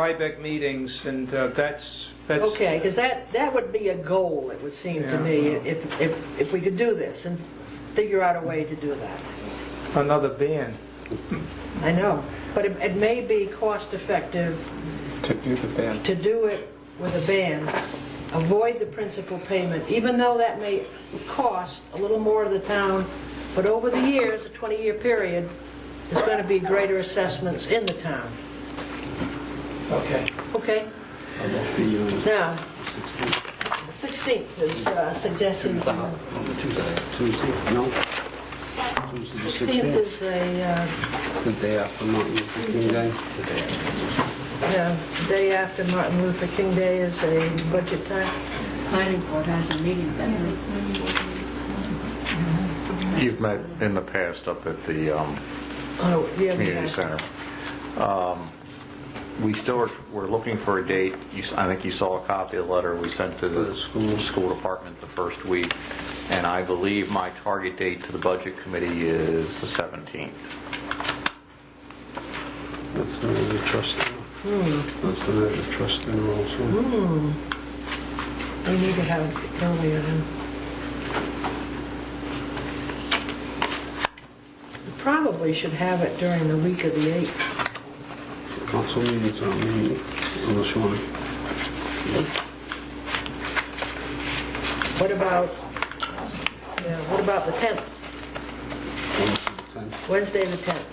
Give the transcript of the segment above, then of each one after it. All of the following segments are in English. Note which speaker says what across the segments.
Speaker 1: Rybeck meetings, and uh, that's, that's,
Speaker 2: Okay, because that, that would be a goal, it would seem to
Speaker 1: Yeah.
Speaker 2: me, if, if, if we could do this and figure out a way to do that.
Speaker 1: another ban.
Speaker 2: I know, but it, it may be cost effective
Speaker 3: to do the ban.
Speaker 2: to do it with a ban, avoid the principal payment, even though that may cost a little more to the town, but over the years, a 20-year period, there's going to be greater assessments in the town.
Speaker 1: Okay.
Speaker 2: Okay, now, 16th is uh, suggested.
Speaker 4: Tuesday, no. Tuesday the
Speaker 2: 16th
Speaker 4: 16th,
Speaker 2: is a, uh,
Speaker 4: the day after Martin Luther King Day.
Speaker 2: yeah, day after Martin Luther King Day is a budget time.
Speaker 5: planning board has a meeting that night.
Speaker 6: You've met in the past up at the um,
Speaker 2: Oh, yeah,
Speaker 6: community
Speaker 2: yeah.
Speaker 6: center. Um, We still are, we're looking for a date. You s- I think you saw a copy of the letter we sent to
Speaker 4: For
Speaker 6: the
Speaker 4: the school.
Speaker 6: school department the first week, and I believe my target date to the budget committee is the 17th.
Speaker 4: That's the night of trust. That's the night of trust and also.
Speaker 2: We need to have it earlier then. We Probably should have it during the week of the 8th.
Speaker 4: Council meetings aren't meeting unless you want.
Speaker 2: What about, yeah, what about the 10th, Wednesday the 10th?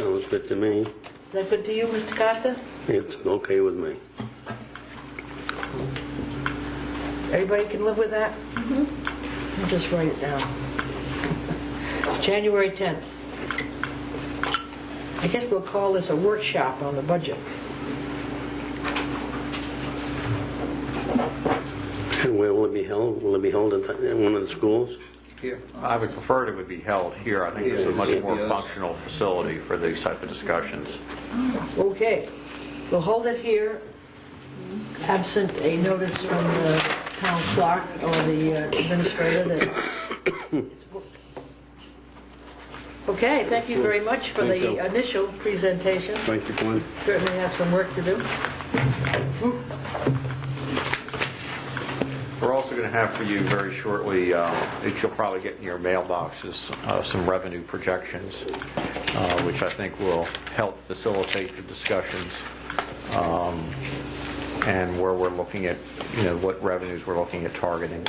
Speaker 7: Sounds good to me.
Speaker 2: Is that good to you, Mr. Costa?
Speaker 7: It's okay with me.
Speaker 2: Everybody can live with that? I'll Just write it down. January 10th. I guess we'll call this a workshop on the budget.
Speaker 7: And where will it be held? Will it be held at the- at one of the schools?
Speaker 3: Here.
Speaker 6: I would prefer it would be held here. I think it's a much more
Speaker 3: Yeah.
Speaker 6: functional facility for these type of discussions.
Speaker 2: Okay, we'll hold it here, absent a notice from the town clerk or the uh, administrator that... Okay, thank you very much for
Speaker 4: Thank you.
Speaker 2: the initial presentation.
Speaker 4: Thank you, Glenn.
Speaker 2: Certainly have some work to do.
Speaker 6: We're also going to have for you very shortly, uh, that you'll probably get in your mailboxes, uh, some revenue projections, uh, which I think will help facilitate the discussions um, and where we're looking at, you know, what revenues we're looking at targeting.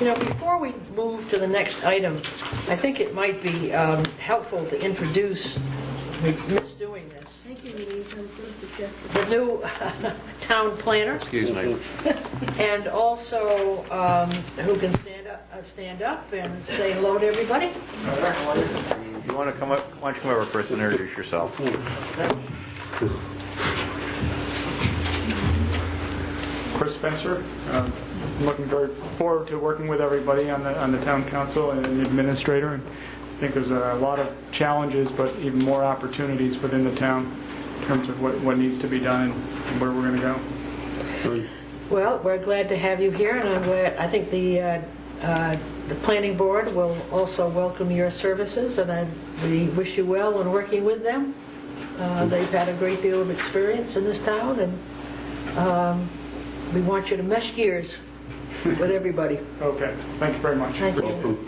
Speaker 2: You know, before we move to the next item, I think it might be um, helpful to introduce, we miss doing this,
Speaker 5: Thank you, Denise, I was going to suggest the
Speaker 2: the new town planner.
Speaker 6: Excuse me.
Speaker 2: And also, um, who can stand up, uh, stand up and say hello to everybody?
Speaker 6: You want to come up, why don't you come over, Chris, and introduce yourself?
Speaker 8: Chris Spencer. Um, I'm Looking very forward to working with everybody on the, on the town council and the administrator. And I think there's a lot of challenges, but even more opportunities within the town in terms of what, what needs to be done and where we're going to go.
Speaker 2: Well, we're glad to have you here, and I'm glad, I think the, uh, uh, the planning board will also welcome your services, and I, we wish you well in working with them. Uh, They've had a great deal of experience in this town, and um, we want you to mesh gears with everybody.
Speaker 8: Okay, thank you very much.
Speaker 2: Thank you.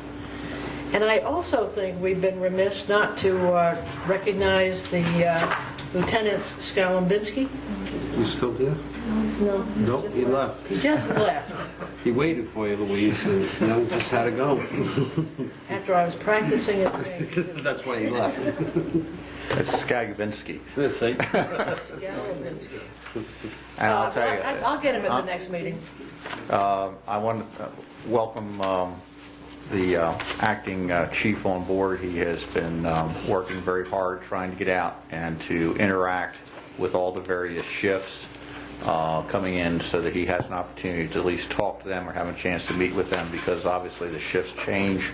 Speaker 2: And I also think we've been remiss not to uh, recognize the uh, Lieutenant Skowambinski.
Speaker 4: You still there?
Speaker 2: No.
Speaker 4: Nope, he left.
Speaker 2: He just left
Speaker 4: He waited for you, Louise, and you know, just had to go.
Speaker 2: after I was practicing at the
Speaker 4: That's why he left.
Speaker 6: It's Skagvinsky.
Speaker 4: This thing.
Speaker 2: Skowambinski.
Speaker 6: And I'll tell you.
Speaker 2: Uh, I- I'll get him at the next meeting.
Speaker 6: Um, I want to uh, welcome um, the uh, acting uh, chief on board. He has been um, working very hard, trying to get out and to interact with all the various shifts uh, coming in so that he has an opportunity to at least talk to them or have a chance to meet with them because obviously the shifts change.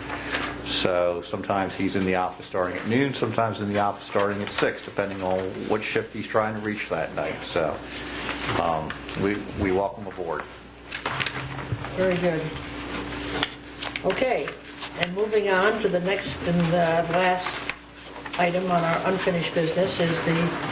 Speaker 6: So sometimes he's in the office starting at noon, sometimes in the office starting at six, depending on what shift he's trying to reach that night. So um, we we welcome aboard.
Speaker 2: Very good. Okay, and moving on to the next and uh, last item on our unfinished business is the